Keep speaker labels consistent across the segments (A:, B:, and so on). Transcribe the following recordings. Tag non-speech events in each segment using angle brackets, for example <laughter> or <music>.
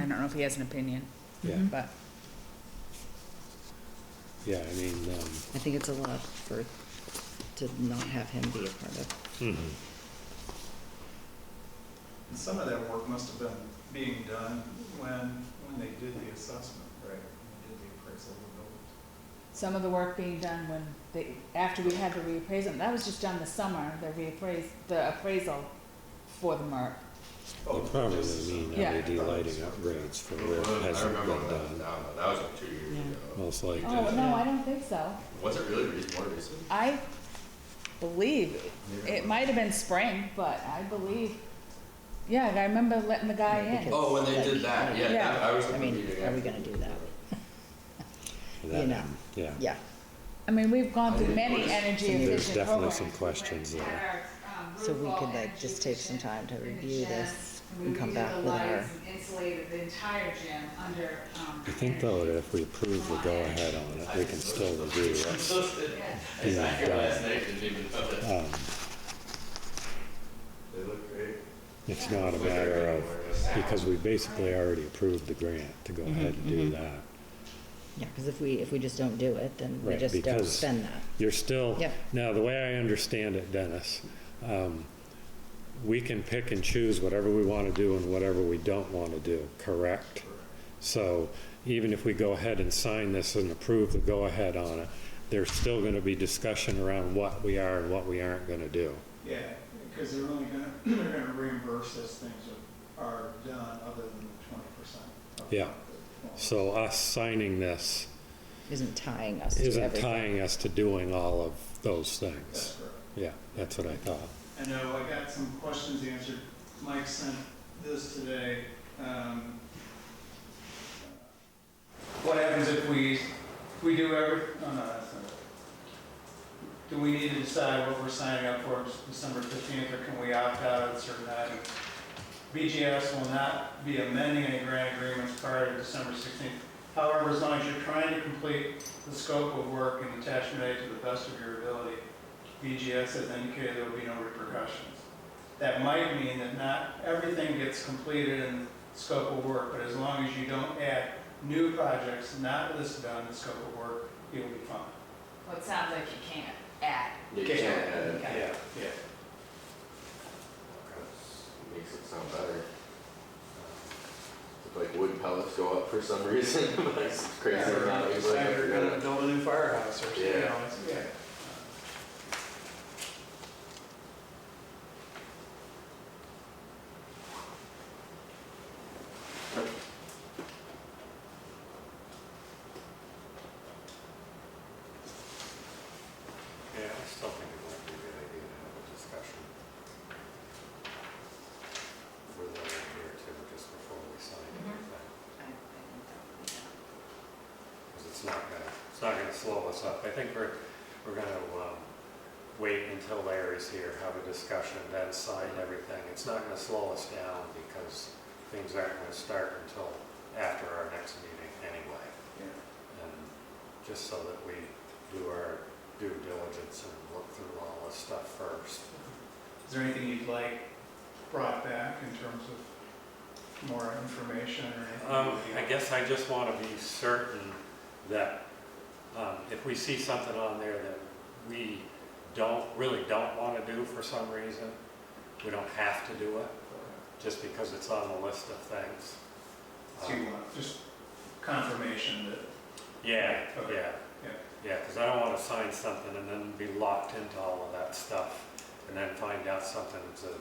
A: I don't know if he has an opinion,
B: Yeah,
C: Mm-hmm.
A: but
B: yeah, I mean, um,
C: I think it's a lot for, to not have him be a part of.
D: Mm-hmm.
E: Some of that work must have been being done when, when they did the assessment, right? When they did the appraisal of the buildings.
A: some of the work being done when they, after we had the reappraisal, that was just done this summer, the reappraise, the appraisal for the MERP.
E: Oh,
B: it probably
E: just-
B: mean
A: Yeah.
B: LED E lighting upgrades for where it
D: I
B: hasn't
D: remember
B: been done.
D: when, that- no, that was like two years
C: Yeah.
D: ago.
B: Most likely.
A: Oh, no, I don't think so.
D: Was it really re- more recent?
A: I believe, it might have been spring, but I believe, yeah, I remember letting the guy in.
D: Oh, when they did that, yeah,
A: Yeah.
D: that- I was.
C: I mean,
D: thinking,
C: are we
D: yeah. <laughs>
C: gonna do that?
B: That-
C: you know.
B: Yeah,
C: Yeah,
A: I mean, we've gone through
D: I
A: many
D: didn't notice.
A: energy
B: there's
A: efficient
B: definitely
A: programs.
B: some questions there.
C: so we could like just take some time to review this and come back with our,
F: Insulated the entire gym under, um.
B: I think though, that if we approve the go-ahead on it, we can still review what's being done. Um,
D: They look great.
B: It's not a matter of, because we basically already approved the grant to go ahead and do that.
C: yeah, because if we, if we just don't do it, then we
B: Right,
C: just don't
B: because-
C: spend that.
B: You're still,
C: Yep.
B: now, the way I understand it, Dennis, um, we can pick and choose whatever we want to do and whatever we don't want to do, correct? So even if we go ahead and sign this and approve the go-ahead on it, there's still going to be discussion around what we are and what we aren't going to do.
E: Yeah, because they're only gonna, <clears throat> they're gonna reimburse as things are, are done other than the twenty percent.
B: Yeah. So us signing this
C: Isn't tying us to
B: isn't
C: everything.
B: tying us to doing all of those
E: That's
B: things.
E: correct.
B: Yeah, that's what I thought.
E: I know, I got some questions answered. Mike sent this today. um, What happens if we, we do every, oh, no, that's not. it. Do we need to decide what we're signing up for December fifteenth, or can we opt out at certain items? BGS will not be amending any grant agreements prior to December sixteenth. However, as long as you're trying to complete the scope of work and attachment A to the best of your ability, BGS has indicated there will be no repercussions. That might mean that not everything gets completed in the scope of work, but as long as you don't add new projects not listed on the scope of work, you'll be fine.
F: Well, it sounds like you can't add.
D: You can't, uh,
F: Okay.
D: yeah.
E: yeah.
D: That's- Makes it sound better. Look Like wood pellets go up for some reason, <laughs> but it's crazy. amount. It's like, I forgot it.
E: build a new firehouse or
D: you Yeah. know,
E: Yeah.
D: Yeah, I still think it might be a good idea to have a discussion. For the year too, just before we sign
F: Mhm.
D: anything.
F: I- I think that would be good.
D: Because it's not gonna, it's not gonna slow us up. I think we're, we're gonna, um, wait until Larry's here, have a discussion, then sign everything. It's not gonna slow us down because things aren't gonna start until after our next meeting anyway. And just so that we do our due diligence and look through all this stuff first.
E: Is there anything you'd like brought back in terms of more information or
D: Um,
E: anything?
D: I guess I just want to be certain that, um, if we see something on there that we don't, really don't want to do for some reason, we don't have to do it, just because it's on the list of things.
E: So you
D: Um,
E: want just confirmation that
D: Yeah,
E: Okay.
D: yeah,
E: Yeah.
D: yeah, because I don't want to sign something and then be locked into all of that stuff, and then find out something that's a,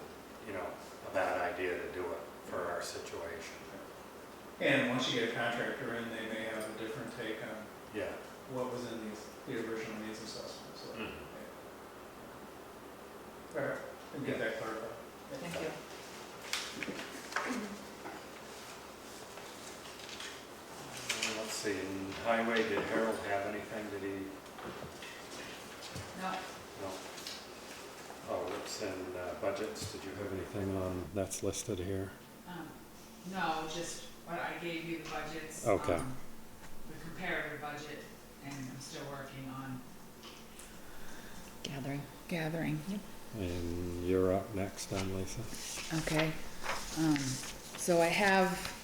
D: you know, a bad idea to do it for our situation.
E: And once you get a contractor in, they may have a different take on
D: Yeah.
E: what was in these, the original needs assessment, so.
D: Mhm.
E: All right, we'll get that clarified.
F: Thank you.
D: Uh, Let's see, in highway, did Harold have anything? Did he,
F: No,
D: no? Oh, what's in uh, budgets? Did you have
B: Anything on, that's listed here?
F: um, no, just what I gave you the budgets.
B: Okay.
F: um, The comparative budget, and I'm still working on.
C: Gathering.
A: Gathering.
B: And you're up next, then, Lisa.
A: Okay, um, so I have